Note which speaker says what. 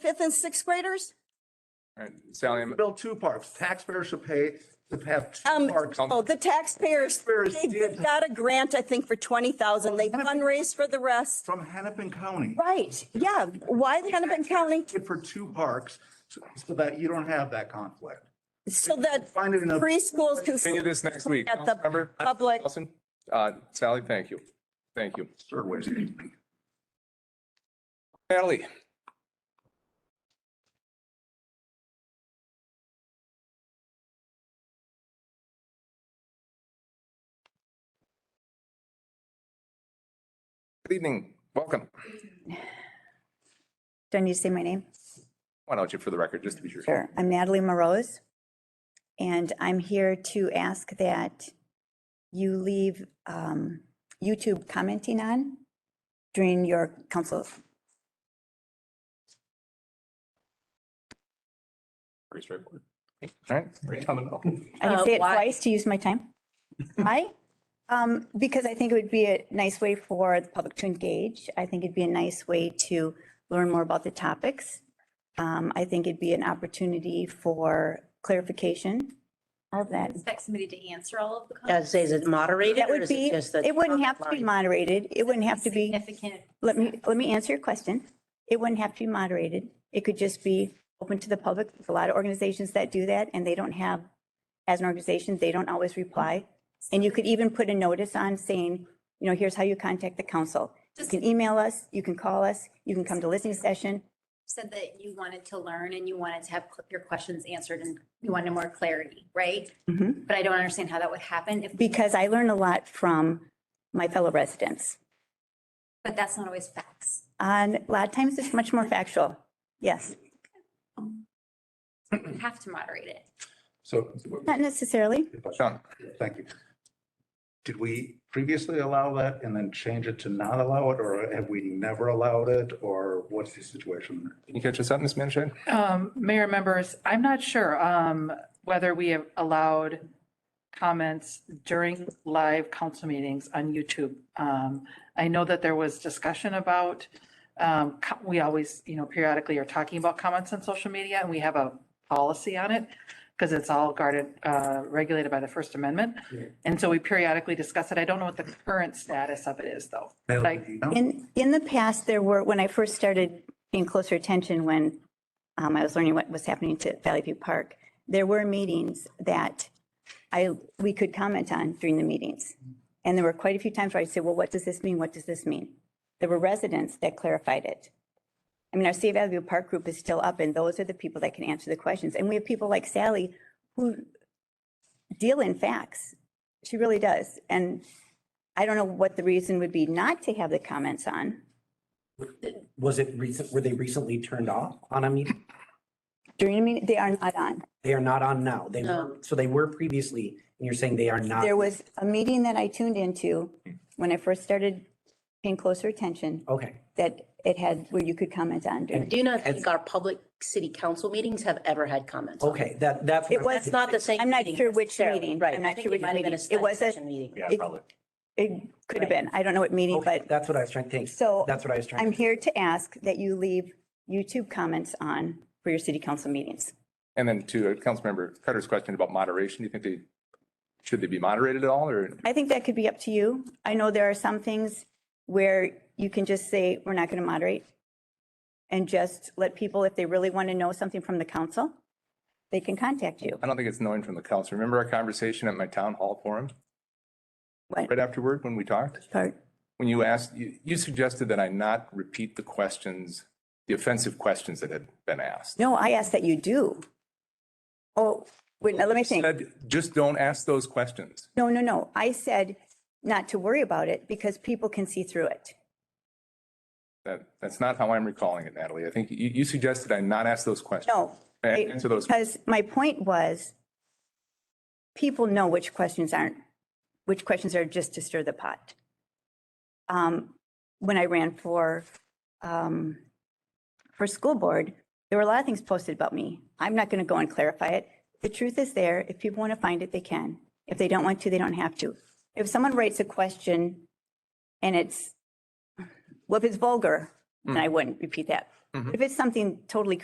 Speaker 1: fifth and sixth graders?
Speaker 2: Alright, Sally, I'm-
Speaker 3: Build two parks. Taxpayers should pay to have two
Speaker 1: Um,
Speaker 3: parks.
Speaker 1: oh, the taxpayers,
Speaker 3: Taxpayers
Speaker 1: they
Speaker 3: did.
Speaker 1: got a grant, I think, for 20,000. They fundraised for the rest.
Speaker 3: From Hennepin County.
Speaker 1: Right, yeah. Why the Hennepin County?
Speaker 3: It for two parks so so that you don't have that conflict.
Speaker 1: So that
Speaker 3: Find it in a.
Speaker 1: preschools can.
Speaker 2: continue this next week.
Speaker 1: At the
Speaker 2: Councilmember
Speaker 1: public-
Speaker 2: Nelson? Uh, Sally, thank you. Thank you.
Speaker 3: Third way.
Speaker 2: Natalie? Good evening. Welcome.
Speaker 4: Do I need to say my name?
Speaker 2: Why don't you, for the record, just to be sure.
Speaker 4: Sure. I'm Natalie Morose. And I'm here to ask that you leave um, YouTube commenting on during your council.
Speaker 2: Pretty straightforward. All right. Great. Coming up.
Speaker 4: I can
Speaker 5: Uh,
Speaker 4: say it
Speaker 5: why?
Speaker 4: twice to use my time. Why? Um, Because I think it would be a nice way for the public to engage. I think it'd be a nice way to learn more about the topics. Um, I think it'd be an opportunity for clarification of that.
Speaker 5: Expect somebody to answer all of the
Speaker 6: Yeah,
Speaker 5: comments.
Speaker 6: Is is it moderated
Speaker 4: That
Speaker 6: or
Speaker 4: would
Speaker 6: is
Speaker 4: be,
Speaker 6: it just the?
Speaker 4: it wouldn't have to be moderated. It wouldn't have to be,
Speaker 5: Significant.
Speaker 4: let me, let me answer your question. It wouldn't have to be moderated. It could just be open to the public. There's a lot of organizations that do that and they don't have, as an organization, they don't always reply. And you could even put a notice on saying, you know, here's how you contact the council. You
Speaker 5: Just
Speaker 4: can email us, you can call us, you can come to listening session.
Speaker 5: said that you wanted to learn and you wanted to have cl- your questions answered and you wanted more clarity, right?
Speaker 4: Mhm.
Speaker 5: But I don't understand how that would happen if,
Speaker 4: Because I learn a lot from my fellow residents.
Speaker 5: but that's not always facts.
Speaker 4: And a lot of times it's much more factual. Yes,
Speaker 5: You have to moderate it.
Speaker 3: So,
Speaker 4: not necessarily.
Speaker 2: Sean?
Speaker 3: thank you. Did we previously allow that and then change it to not allow it, or have we never allowed it, or what's the situation?
Speaker 2: Can you catch us up, Ms. Manished?
Speaker 7: Um, Mayor members, I'm not sure um, whether we have allowed comments during live council meetings on YouTube. Um, I know that there was discussion about, um, co- we always, you know, periodically are talking about comments on social media and we have a policy on it because it's all guarded, uh, regulated by the First Amendment. And so we periodically discuss it. I don't know what the current status of it is, though. Like-
Speaker 3: No?
Speaker 4: In, in the past, there were, when I first started paying closer attention, when um, I was learning what was happening to Valley View Park, there were meetings that I, we could comment on during the meetings. And there were quite a few times where I'd say, well, what does this mean? What does this mean? There were residents that clarified it. I mean, our Save Valley View Park group is still up and those are the people that can answer the questions. And we have people like Sally who deal in facts. She really does. And I don't know what the reason would be not to have the comments on.
Speaker 8: Was it recent, were they recently turned off on a meeting?
Speaker 4: During a meeting, they are not on.
Speaker 8: They are not on now. They
Speaker 6: No.
Speaker 8: were, so they were previously, and you're saying they are not.
Speaker 4: There was a meeting that I tuned into when I first started paying closer attention
Speaker 8: Okay,
Speaker 4: that it had, where you could comment on. during-
Speaker 6: Do you not think our public city council meetings have ever had comments? on it?
Speaker 8: okay, that, that's.
Speaker 4: It was-
Speaker 6: That's not the same.
Speaker 4: I'm not
Speaker 6: meeting
Speaker 4: sure which
Speaker 6: necessarily,
Speaker 4: meeting.
Speaker 6: Right.
Speaker 4: I'm not
Speaker 6: I think
Speaker 4: sure
Speaker 6: it
Speaker 4: which
Speaker 6: might have been
Speaker 4: meeting.
Speaker 6: a
Speaker 4: It was a-
Speaker 6: study session meeting.
Speaker 4: It it could have been, I don't know what meeting,
Speaker 8: Okay,
Speaker 4: but
Speaker 8: That's what I was trying to think.
Speaker 4: So,
Speaker 8: That's what I was trying.
Speaker 4: I'm here to ask that you leave YouTube comments on for your city council meetings.
Speaker 2: And then to Councilmember Cutter's question about moderation, do you think they, should they be moderated at all or?
Speaker 4: I think that could be up to you. I know there are some things where you can just say, we're not going to moderate. And just let people, if they really want to know something from the council, they can contact you.
Speaker 2: I don't think it's knowing from the council. Remember our conversation at my town hall forum?
Speaker 4: What?
Speaker 2: Right afterward, when we talked,
Speaker 4: Part.
Speaker 2: when you asked, you, you suggested that I not repeat the questions, the offensive questions that had been asked.
Speaker 4: No, I ask that you do. Oh, wait, now let me think.
Speaker 2: Said, just don't ask those questions.
Speaker 4: No, no, no. I said not to worry about it because people can see through it.
Speaker 2: That, that's not how I'm recalling it, Natalie. I think you, you suggested I not ask those questions.
Speaker 4: No.
Speaker 2: And answer those.
Speaker 4: Because my point was, people know which questions aren't, which questions are just to stir the pot. Um, When I ran for, um, for school board, there were a lot of things posted about me. I'm not going to go and clarify it. The truth is there. If people want to find it, they can. If they don't want to, they don't have to. If someone writes a question and
Speaker 2: Hmm. Mm-hmm.
Speaker 4: it's, well, if it's vulgar, then I wouldn't repeat that. If it's something totally